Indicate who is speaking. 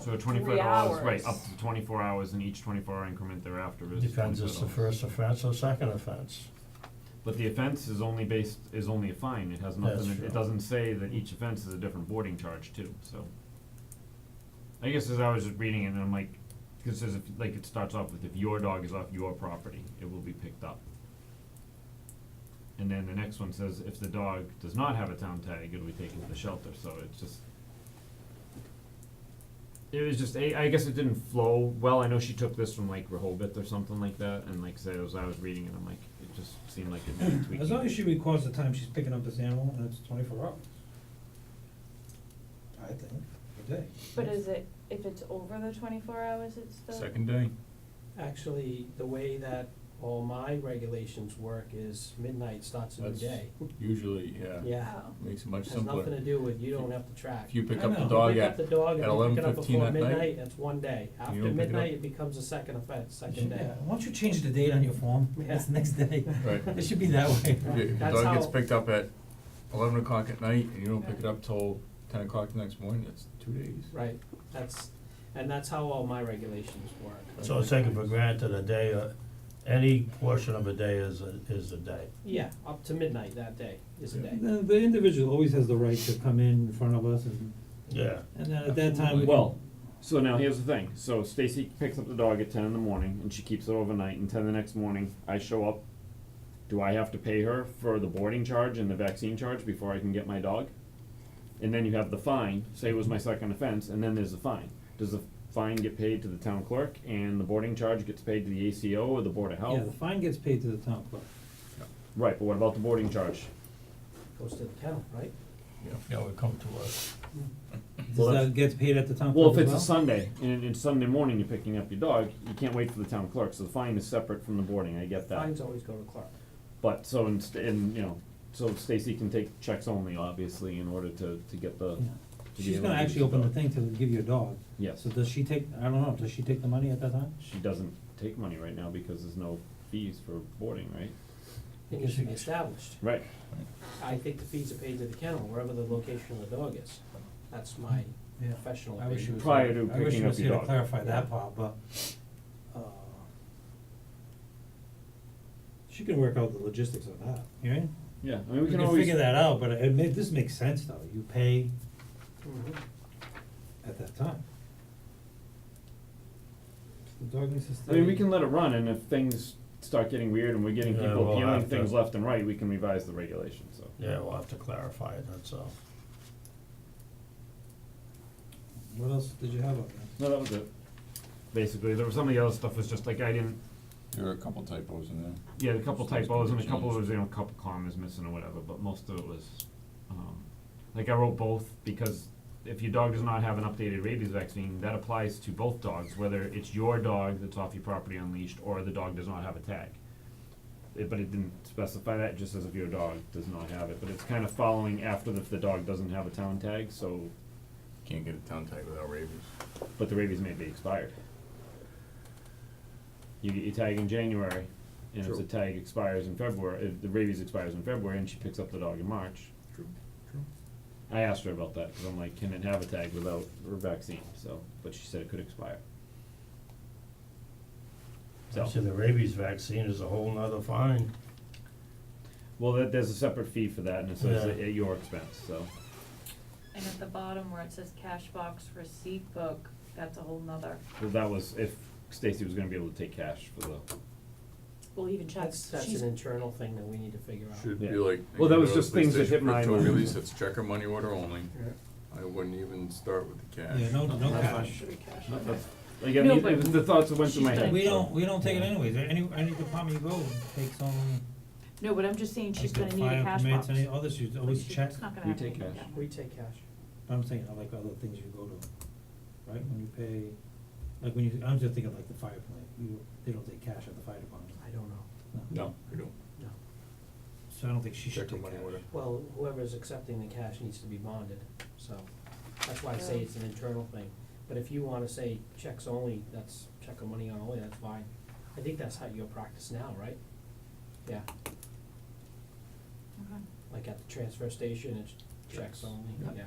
Speaker 1: So twenty-four
Speaker 2: three
Speaker 1: dollars, right,
Speaker 2: hours.
Speaker 1: up to twenty-four hours and each twenty-four hour increment thereafter is
Speaker 3: Depends, it's the
Speaker 1: $24.
Speaker 3: first offense or second offense.
Speaker 1: But the offense is only based, is only a fine, it has
Speaker 3: That's
Speaker 1: nothing, it-
Speaker 3: true.
Speaker 1: it doesn't say that each offense is a different boarding charge too, so. I guess as I was just reading it, and I'm like, cause it says if, like, it starts off with if your dog is off your property, it will be picked up. And then the next one says if the dog does not have a town tag, it'll be taken to the shelter, so it's just. It was just, I, I guess it didn't flow well, I know she took this from like Rehoboth or something like that, and like, say, as I was reading it, I'm like, it just seemed like it needed tweaking.
Speaker 4: As long as she records the time she's picking up this animal and it's twenty-four hours. I think, a day.
Speaker 2: But is it, if it's over the twenty-four hours, it's the?
Speaker 5: Second day?
Speaker 6: Actually, the way that all my regulations work is midnight starts a new
Speaker 5: That's-
Speaker 6: day.
Speaker 5: Usually, yeah.
Speaker 6: Yeah,
Speaker 2: Oh,
Speaker 5: Makes it much
Speaker 6: has nothing to
Speaker 5: simpler.
Speaker 6: do with, you don't have to track.
Speaker 5: If you pick
Speaker 4: I
Speaker 5: up the
Speaker 4: know.
Speaker 5: dog
Speaker 6: You pick up
Speaker 5: at,
Speaker 6: the dog
Speaker 5: at
Speaker 6: and you pick it up
Speaker 5: 11:15
Speaker 6: before
Speaker 5: at night?
Speaker 6: midnight, that's one day.
Speaker 5: you
Speaker 6: After
Speaker 5: don't pick it up?
Speaker 6: midnight, it becomes a second offense, second day.
Speaker 4: Yeah, once you change the date on your form, it's the next day.
Speaker 5: right,
Speaker 4: It should be that way.
Speaker 5: if your- if your
Speaker 6: That's
Speaker 5: dog gets
Speaker 6: how-
Speaker 5: picked up at eleven o'clock at night and you don't pick it up till ten o'clock the next morning, it's two days.
Speaker 6: Right, that's, and that's how all my regulations work.
Speaker 3: So it's taken for granted a day, uh, any portion of a day is a, is a day.
Speaker 6: Yeah, up to midnight that day is a day.
Speaker 4: The, the individual always has the right to come in in front of us and,
Speaker 3: Yeah.
Speaker 4: and then at that time, we
Speaker 1: Well, so now here's the thing. So Stacy picks up the dog at ten in the morning and she keeps it overnight and ten the next morning I show up. Do I have to pay her for the boarding charge and the vaccine charge before I can get my dog? And then you have the fine, say it was my second offense, and then there's the fine. Does the fine get paid to the town clerk and the boarding charge gets paid to the ACO or the Board of Health?
Speaker 4: yeah, the fine gets paid to the town clerk.
Speaker 1: Right, but what about the boarding charge?
Speaker 6: Goes to the kennel, right?
Speaker 3: Yeah, would come to us.
Speaker 1: Well,
Speaker 4: Does
Speaker 1: that's-
Speaker 4: that get paid at the town
Speaker 1: Well,
Speaker 4: clerk
Speaker 1: if
Speaker 4: as
Speaker 1: it's a Sunday and it's Sunday morning you're picking up your dog, you can't wait for the town clerk, so the fine is separate from the boarding, I get that.
Speaker 6: Fines always go to clerk.
Speaker 1: But so in, st- in you know, so Stacy can take checks only, obviously, in order to, to get the.
Speaker 4: Yeah.
Speaker 1: to be
Speaker 4: She's
Speaker 1: able
Speaker 4: gonna
Speaker 1: to use
Speaker 4: actually open the
Speaker 1: dog.
Speaker 4: thing to give you a dog.
Speaker 1: Yes,
Speaker 4: So does she take, I don't know, does she take the money at that time?
Speaker 1: she doesn't take money right now because there's no fees for boarding, right?
Speaker 6: It needs to be established.
Speaker 1: Right.
Speaker 6: I think the fees are paid to the kennel, wherever the location of the dog is. That's my
Speaker 4: Yeah.
Speaker 6: professional
Speaker 4: I wish she
Speaker 6: opinion.
Speaker 4: was.
Speaker 1: Prior
Speaker 4: here-
Speaker 1: to
Speaker 4: I wish she
Speaker 1: picking up
Speaker 4: was
Speaker 1: your
Speaker 4: here to
Speaker 1: dog.
Speaker 4: clarify that part, but, uh, she can work out the logistics of that, you know?
Speaker 1: Yeah, I mean,
Speaker 4: We
Speaker 1: we can
Speaker 4: can
Speaker 1: always,
Speaker 4: figure that out, but it ma- this makes sense though, you pay
Speaker 6: Mhm.
Speaker 4: at that time. The dog needs to stay.
Speaker 1: I mean, we can let it run and if things start getting weird and we're getting
Speaker 3: Yeah,
Speaker 1: people
Speaker 3: we'll have
Speaker 1: appealing
Speaker 3: to-
Speaker 1: things left and right, we can revise the regulation, so.
Speaker 3: Yeah, we'll have to clarify it, that's all.
Speaker 4: What else did you have up there?
Speaker 1: No, that was it. Basically, there was some of the other stuff was just like I didn't,
Speaker 5: There are a couple typos in there.
Speaker 1: yeah, a couple
Speaker 5: Stuff's
Speaker 1: typos and a
Speaker 5: been
Speaker 1: couple
Speaker 5: changed.
Speaker 1: was, you know, a couple commas missing or whatever, but most of it was, um, like I wrote both because if your dog does not have an updated rabies vaccine, that applies to both dogs, whether it's your dog that's off your property unleashed or the dog does not have a tag. It, but it didn't specify that, just as if your dog does not have it, but it's kind of following after if the dog doesn't have a town tag, so,
Speaker 5: Can't get a town tag without rabies.
Speaker 1: but the rabies may be expired. You get your tag in January, and if
Speaker 5: True.
Speaker 1: the tag expires in February, if the rabies expires in February and she picks up the dog in March,
Speaker 5: True.
Speaker 1: I asked her about that because I'm like, can it have a tag without a vaccine? So, but she said it could expire. So,
Speaker 3: See, the rabies vaccine is a whole nother fine.
Speaker 1: well, there- there's a separate fee for that, and it says
Speaker 3: Yeah.
Speaker 1: at at your expense. So,
Speaker 2: And at the bottom where it says cash box receipt book, that's a whole nother,
Speaker 1: well, that was if Stacy was going to be able to take cash for the.
Speaker 2: well, even check,
Speaker 6: That's, that's
Speaker 2: she's,
Speaker 6: an internal thing that we need to figure out.
Speaker 5: Should
Speaker 1: Yeah.
Speaker 5: be like.
Speaker 1: Well, that was
Speaker 5: at
Speaker 1: just
Speaker 5: least
Speaker 1: things
Speaker 5: they
Speaker 1: that hit
Speaker 5: should
Speaker 1: my
Speaker 5: put To a
Speaker 1: mind.
Speaker 5: release, it's check or money order only.
Speaker 6: Yeah.
Speaker 5: I wouldn't even start with the cash.
Speaker 4: Yeah, no, no
Speaker 6: That's
Speaker 4: cash.
Speaker 6: fine.
Speaker 2: should be cash.
Speaker 1: No,
Speaker 2: okay.
Speaker 1: that's- Like, I
Speaker 2: No,
Speaker 1: mean,
Speaker 2: but
Speaker 1: it was the thoughts that went through my
Speaker 2: she's
Speaker 1: head.
Speaker 4: We
Speaker 1: so-
Speaker 4: don't, we don't take it anyways, any, any department you go takes on,
Speaker 2: No, but I'm just saying she's gonna
Speaker 4: like the
Speaker 2: need a
Speaker 4: fire
Speaker 2: cash
Speaker 4: permits,
Speaker 2: box.
Speaker 4: any others, you always
Speaker 2: Like, she-
Speaker 4: check,
Speaker 2: It's not gonna
Speaker 1: We
Speaker 2: happen.
Speaker 1: take cash.
Speaker 2: yeah.
Speaker 6: We take cash.
Speaker 4: I'm saying, I like other things you go to, right, when you pay, like when you, I'm just thinking like the fire plant, you, they don't take cash at the fire department,
Speaker 6: I don't know,
Speaker 4: no,
Speaker 5: No, we don't.
Speaker 6: no.
Speaker 4: so I don't think she should
Speaker 5: Check or
Speaker 4: take cash.
Speaker 5: money order.
Speaker 6: Well, whoever's accepting the cash needs to be bonded, so that's why I say it's an internal thing. But if you wanna say checks only, that's check or money only, that's fine. I think that's how you practice now, right? Yeah,
Speaker 2: Okay.
Speaker 6: like at the transfer station, it's checks only, yeah.